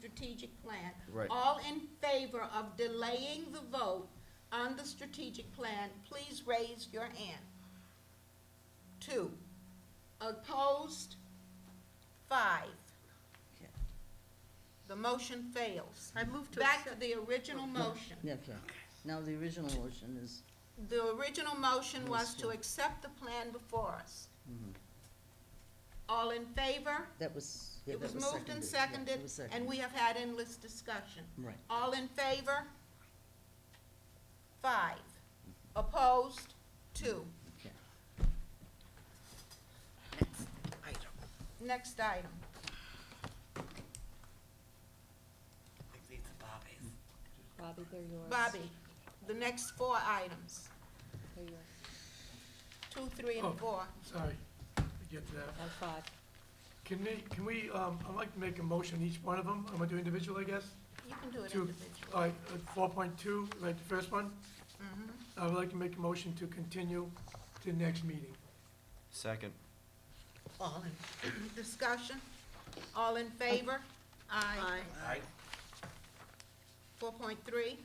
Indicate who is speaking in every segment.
Speaker 1: strategic plan.
Speaker 2: Right.
Speaker 1: All in favor of delaying the vote on the strategic plan, please raise your hand. Two. Opposed? Five.
Speaker 3: Okay.
Speaker 1: The motion fails.
Speaker 3: I move to
Speaker 1: Back
Speaker 3: accept.
Speaker 1: to the original motion.
Speaker 3: Yeah, Okay, now the original motion is,
Speaker 1: The original motion was to accept the plan before us.
Speaker 3: Mm-hmm.
Speaker 1: All in favor?
Speaker 3: that was, yeah,
Speaker 1: It was
Speaker 3: that was
Speaker 1: moved and
Speaker 3: Yeah,
Speaker 1: seconded,
Speaker 3: it was
Speaker 1: and
Speaker 3: seconded.
Speaker 1: we have had endless discussion.
Speaker 3: Right.
Speaker 1: All in favor? Five. Opposed? Two.
Speaker 3: Okay.
Speaker 1: Next item.
Speaker 4: Bobby, they're yours.
Speaker 1: Bobby, the next four items,
Speaker 4: They're yours.
Speaker 1: two, three, and
Speaker 5: Oh.
Speaker 1: four.
Speaker 5: Sorry, I get to that.
Speaker 4: And five.
Speaker 5: Can we, can we, um, I'd like to make a motion each one of them. I'm gonna do individual, I guess.
Speaker 1: You can do it
Speaker 5: To-
Speaker 1: individually.
Speaker 5: All right, uh, four point two, like the first one.
Speaker 1: Mm-hmm.
Speaker 5: I would like to make a motion to continue to next meeting.
Speaker 2: Second.
Speaker 1: All in, discussion? All in favor? Aye.
Speaker 2: Aye.
Speaker 1: Four point three?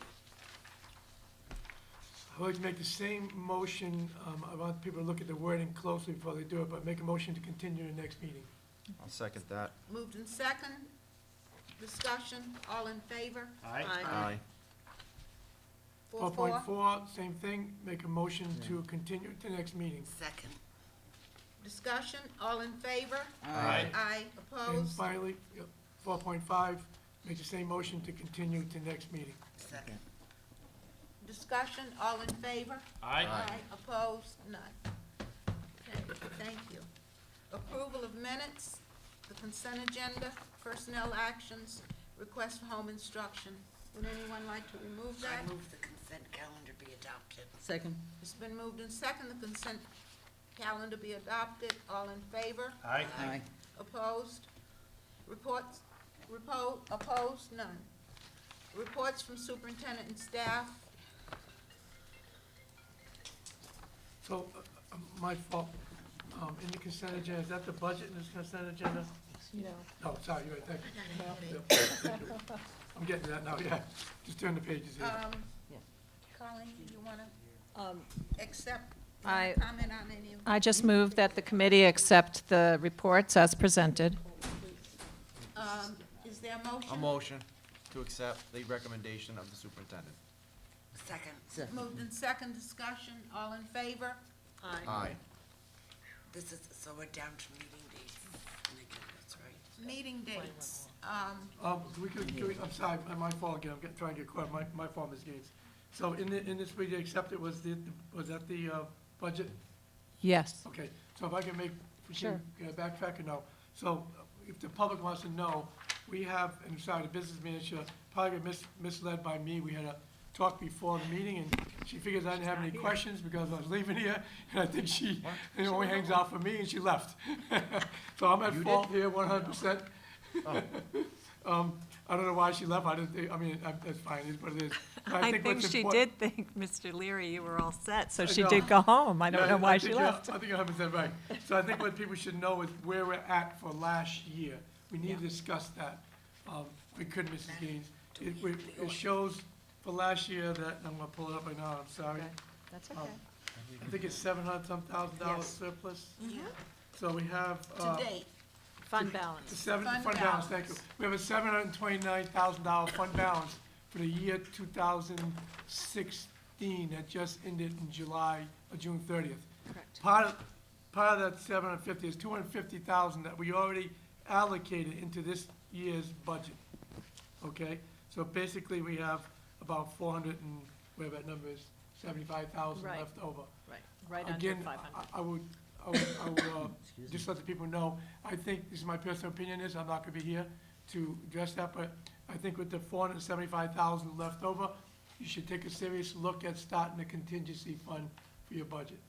Speaker 5: I would like to make the same motion, um, I want people to look at the wording closely before they do it, but make a motion to continue to next meeting.
Speaker 2: I'll second that.
Speaker 1: Moved in second. Discussion, all in favor?
Speaker 6: Aye.
Speaker 2: Aye.
Speaker 1: Four,
Speaker 5: point
Speaker 1: four.
Speaker 5: four, same thing, make a motion to continue to next meeting.
Speaker 3: Second.
Speaker 1: Discussion, all in favor?
Speaker 2: Aye.
Speaker 1: Aye.
Speaker 5: And
Speaker 1: Opposed?
Speaker 5: finally, four point five, make the same motion to continue to next meeting.
Speaker 3: Second.
Speaker 1: Discussion, all in favor?
Speaker 2: Aye.
Speaker 1: Opposed? None. Okay, thank you. Approval of minutes, the consent agenda, personnel actions, request for home instruction. Would anyone like to remove that?
Speaker 7: I move the consent calendar be adopted.
Speaker 3: Second,
Speaker 1: It's been moved in second, the consent calendar be adopted. All in favor?
Speaker 6: Aye.
Speaker 3: aye,
Speaker 1: Opposed? Reports, repo, opposed, none. Reports from superintendent and staff,
Speaker 5: So, uh, uh, my fault, um, in the consent agenda, is that the budget in this consent agenda?
Speaker 4: You know.
Speaker 5: No, sorry, you're right, thank you. Yep. I'm getting to that now, yeah, just turn the pages here.
Speaker 1: um,
Speaker 3: Yeah.
Speaker 1: Colleen, you wanna
Speaker 4: Um,
Speaker 1: accept,
Speaker 8: I-
Speaker 1: comment on any of
Speaker 8: I just move that the committee accept the reports as presented.
Speaker 1: Um, is there a motion?
Speaker 2: A motion to accept the recommendation of the superintendent.
Speaker 7: Second,
Speaker 3: second.
Speaker 1: Moved in second discussion, all in favor?
Speaker 2: Aye.
Speaker 7: this is, so we're down to meeting dates and agendas, right?
Speaker 1: Meeting dates, um,
Speaker 5: Um, we could, could we- I'm sorry, my- my fault again, I'm get- trying to get caught, my, my fault, Ms. Gates. So in the, in this, we accepted, was the, was that the, uh, budget?
Speaker 8: Yes.
Speaker 5: Okay, so if I can make, we
Speaker 8: Sure.
Speaker 5: can uh, backtrack or no? So uh, if the public wants to know, we have, and sorry, the business manager probably got mis- misled by me. We had a talk before the meeting, and she figures I didn't have any questions because I was leaving here, and I think she, it only hangs out for me, and she left. So I'm at
Speaker 2: You did? Oh.
Speaker 5: fault here one hundred percent. Um, I don't know why she left. I didn't, think- I mean, I- that's fine, it is what it is. But
Speaker 8: I think
Speaker 5: what's
Speaker 8: she
Speaker 5: import-
Speaker 8: did think, Mr. Leary, you were all set, so she
Speaker 5: know.
Speaker 8: did go home. I
Speaker 5: yeah,
Speaker 8: don't know why she
Speaker 5: think you're-
Speaker 8: left.
Speaker 5: I think you have it said right. So I think what people should know is where we're at for last year. We need to discuss that. Um, We could, Mrs. Gaines. It, we- it shows for last year that, I'm gonna pull it up right now, I'm sorry.
Speaker 8: That's
Speaker 5: Um, I think it's seven hundred some thousand dollars surplus.
Speaker 3: Mm-hmm.
Speaker 5: So we have, uh,
Speaker 1: to date,
Speaker 8: Fund balance.
Speaker 5: Seven,
Speaker 1: Fund
Speaker 5: fund balance, thank you. We have a seven hundred and twenty-nine thousand dollar fund balance for the year two thousand sixteen that just ended in July, or June thirtieth.
Speaker 8: Correct.
Speaker 5: Part of, part of that seven hundred and fifty is two hundred and fifty thousand that we already allocated into this year's budget. Okay, so basically, we have about four hundred and, whatever that number is, seventy-five thousand
Speaker 8: Right.
Speaker 5: left over.
Speaker 8: Right, right under five hundred.
Speaker 5: Again, I- I would, I would, I would, uh, just let the people know, I think, this is my personal opinion is, I'm not gonna be here to address that, but I think with the four hundred and seventy-five thousand left over, you should take a serious look at starting a contingency fund for your budget.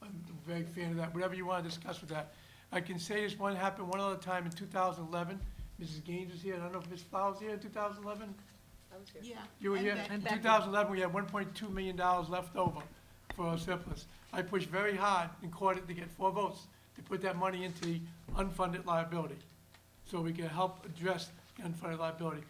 Speaker 5: I'm a big fan of that, whatever you wanna discuss with that. I can say this one happened one other time in two thousand eleven, Mrs. Gaines was here, I don't know if Ms. Flowers was here in two thousand eleven?
Speaker 1: yeah.
Speaker 5: You were
Speaker 1: and
Speaker 5: here,
Speaker 1: that-
Speaker 5: in
Speaker 8: And Becky.
Speaker 5: 2011, we had 1.2 million dollars left over for our surplus. I pushed very hard in court to get four votes to put that money into the unfunded liability, so we can help address unfunded liability.